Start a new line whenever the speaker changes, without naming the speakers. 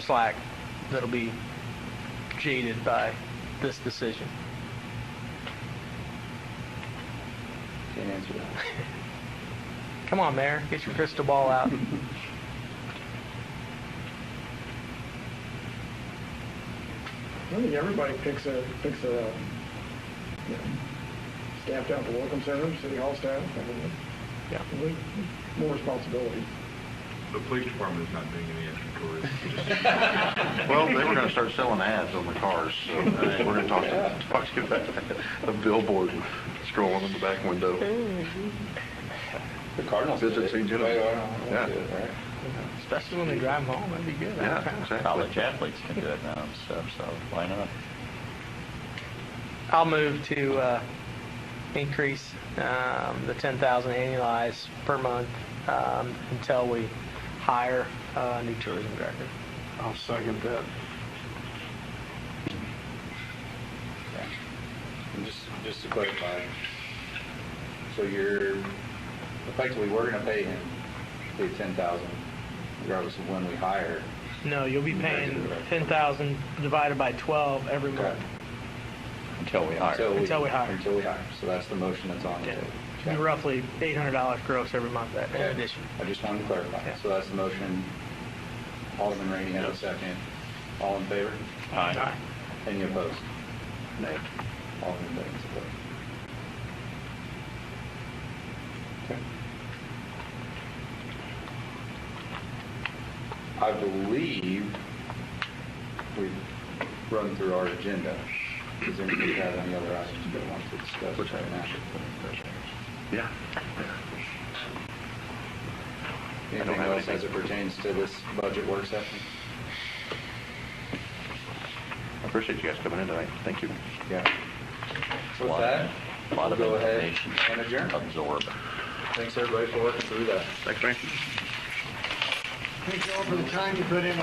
slack that'll be jaded by this decision.
Can't answer that.
Come on, Mayor, get your crystal ball out.
I think everybody picks a, picks a, you know, staff down at the welcome center, city hall staff, I mean,
Yeah.
we- more responsibility.
The police department is not doing any extra tourists.
Well, they were gonna start selling ads on the cars, so I think we're gonna talk, talk to you about a billboard scrolling in the back window.
The Cardinals.
Visit
did it.
St. Genevieve.
Right, right,
Yeah.
right, right.
Especially when they drive home, that'd be good.
Yeah, exactly.
College athletes can do it now and stuff, so why not?
I'll move to uh, increase um, the 10,000 annualized per month um, until we hire a new tourism director.
I'll second that.
And Just, just to clarify, uh, so you're, effectively, we're gonna pay him, pay ten thousand, regardless of when we hire.
No, you'll be paying 10,000 divided by 12 every month.
Until we hire.
Until we hire.
Until we hire, so that's the motion that's on the
Yeah.
table.
It'll be Roughly $800 gross every month in
Okay.
addition.
I just wanted to clarify,
Yeah.
so that's the motion, Alderman Rainey has a second, all in favor?
Aye.
Any opposed? Nay. All in favor, support. Okay. I believe we've run through our agenda. Does anybody have any other items they want to discuss
Which
right now?
Yeah. I don't
Anything
have
else as it
anything.
pertains to this budget work session?
I appreciate you guys coming in tonight. Thank you.
Yeah. With that,
A lot
we'll
of
go ahead
information.
and adjourn.
Absorb.
Thanks, everybody, for working through that.
Thanks, man.
Thank you all for the time you put in